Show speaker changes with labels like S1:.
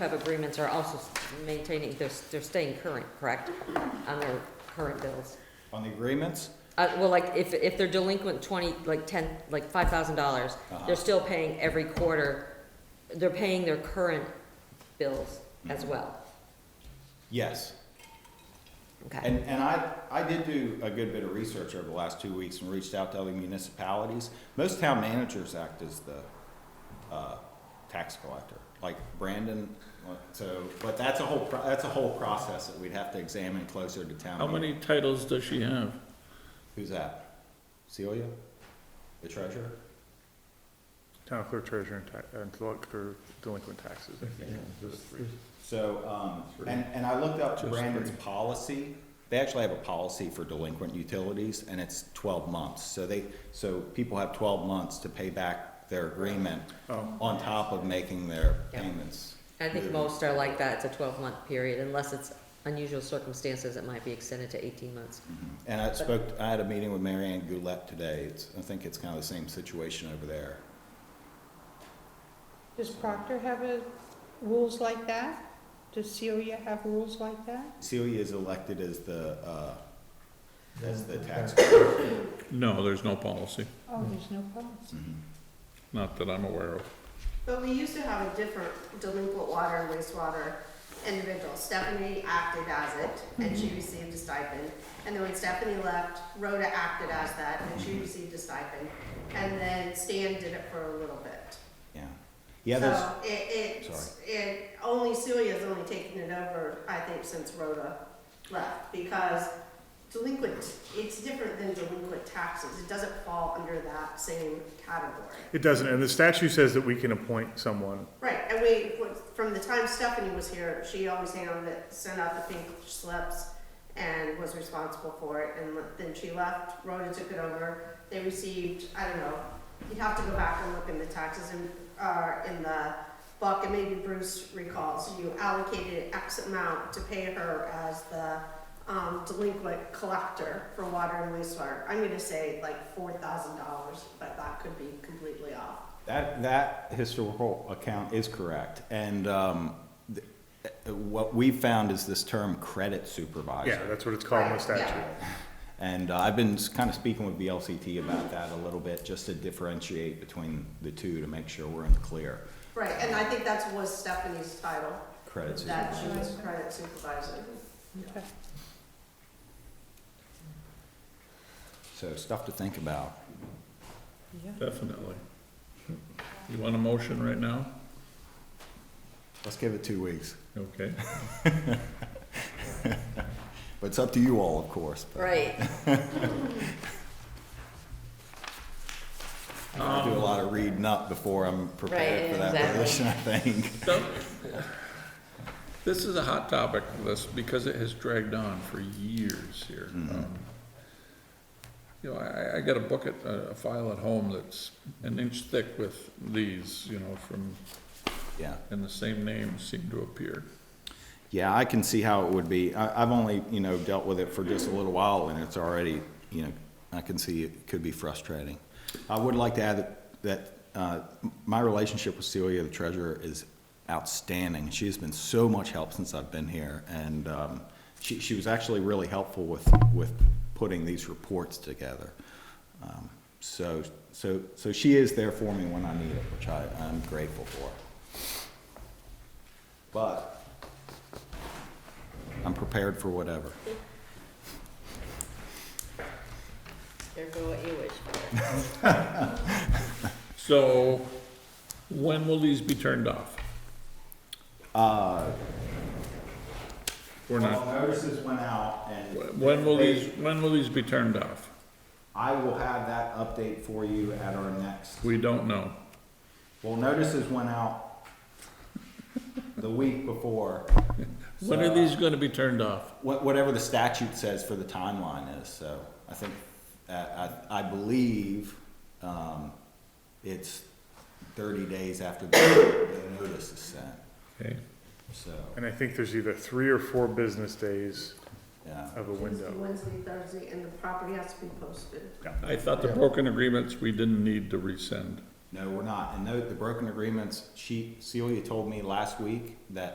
S1: have agreements are also maintaining, they're, they're staying current, correct? On their current bills?
S2: On the agreements?
S1: Uh, well, like, if, if they're delinquent twenty, like ten, like five thousand dollars,
S2: Uh-huh.
S1: they're still paying every quarter, they're paying their current bills as
S2: Mm-hmm.
S1: well,
S2: Yes.
S1: okay?
S2: And, and I, I did do a good bit of research over the last two weeks and reached out to other municipalities. Most town managers act as the, uh, tax collector, like Brandon, uh, so, but that's a whole, pro- that's a whole process that we'd have to examine closer to town.
S3: How
S2: meeting.
S3: many titles does she have?
S2: Who's that? Celia? The treasurer?
S4: Town clerk, treasurer, and ta- and collector delinquent taxes. I think, those three.
S2: So, um, and, and I looked up Brandon's policy. They actually have a policy for delinquent utilities and it's twelve months. So they, so people have twelve months to pay back their agreement
S4: Oh.
S2: on top of making their
S1: Yeah.
S2: payments.
S1: I think most are like that, it's a twelve-month period, unless it's unusual circumstances, it might be extended to eighteen months.
S2: And I spoke, I had a meeting with Mary Ann Goulet today. It's, I think it's kind of the same situation over there.
S5: Does Proctor have a, rules like that? Does Celia have rules like that?
S2: Celia is elected as the, uh, as the tax.
S3: No, there's no policy,
S5: Oh, there's no policy.
S2: Mhm.
S3: not that I'm aware of.
S6: But we used to have a different delinquent water and wastewater individual. Stephanie acted as it, and she received a stipend. And then when Stephanie left, Rhoda acted as that, and she received a stipend. And then Stan did it for a little bit.
S2: Yeah. Yeah, there's.
S6: So it,
S2: Sorry.
S6: it, it, only Celia's only taken it over, I think, since Rhoda left, because delinquent, it's different than delinquent taxes. It doesn't fall under that same category.
S4: It doesn't, and the statute says that we can appoint someone.
S6: Right, and we, from the time Stephanie was here, she always handled it, sent out the pink slips and was responsible for it, and then she left, Rhoda took it over, they received, I don't know, you'd have to go back and look in the taxes and, uh, in the book, and maybe Bruce recalls, you allocated X amount to pay her as the, um, delinquent collector for water and wastewater. I'm gonna say like four thousand dollars, but that could be completely off.
S2: That, that historical account is correct, and um, th- uh, what we found is this term credit
S4: Yeah,
S2: supervisor.
S4: that's what it's called in the
S6: Right, yeah.
S4: statute.
S2: And uh, I've been kind of speaking with BLCT about that a little bit, just to differentiate between the two to make sure we're in the clear.
S6: Right, and I think that's was Stephanie's title,
S2: Credit
S6: that
S2: supervisor.
S6: she was credit supervisor.
S5: Okay.
S2: So stuff to think about.
S3: Definitely. You want a motion right now?
S2: Let's give it two weeks.
S3: Okay.
S2: But it's up to you all, of course. but
S1: Right.
S2: I gotta do a lot of reading up before I'm prepared
S1: Right,
S2: for that
S1: exactly.
S2: position, I think.
S3: So, This is a hot topic, this, because it has dragged on for years here. Um, You know, I, I got a book at, uh, a file at home that's an inch thick with these, you know, from,
S2: Yeah.
S3: and the same names seem to appear.
S2: Yeah, I can see how it would be. I, I've only, you know, dealt with it for just a little while and it's already, you know, I can see it could be frustrating. I would like to add that, that, uh, my relationship with Celia, the treasurer, is outstanding. She has been so much help since I've been here and, um, she, she was actually really helpful with, with putting these reports together. Um, So, so, so she is there for me when I need it, which I, I'm grateful for. But I'm prepared for whatever.
S1: Careful what you wish for.
S3: So, when will these be turned off? Or not?
S2: notices went out and.
S3: When will these, when will these be turned off?
S2: I will have that update for you at our next,
S3: We don't know.
S2: well, notices went out the week before.
S3: When are these gonna be turned off?
S2: Wha- Whatever the statute says for the timeline is, so I think, uh, I, I believe, um, it's thirty days after the the notice is sent,
S3: Okay,
S2: so,
S4: And I think there's either three or four business days
S2: yeah.
S4: of a window.
S6: Tuesday, Wednesday, Thursday, and the property has to be posted.
S3: I thought the broken agreements, we didn't need to rescind.
S2: No, we're not. And note, the broken agreements, she, Celia told me last week that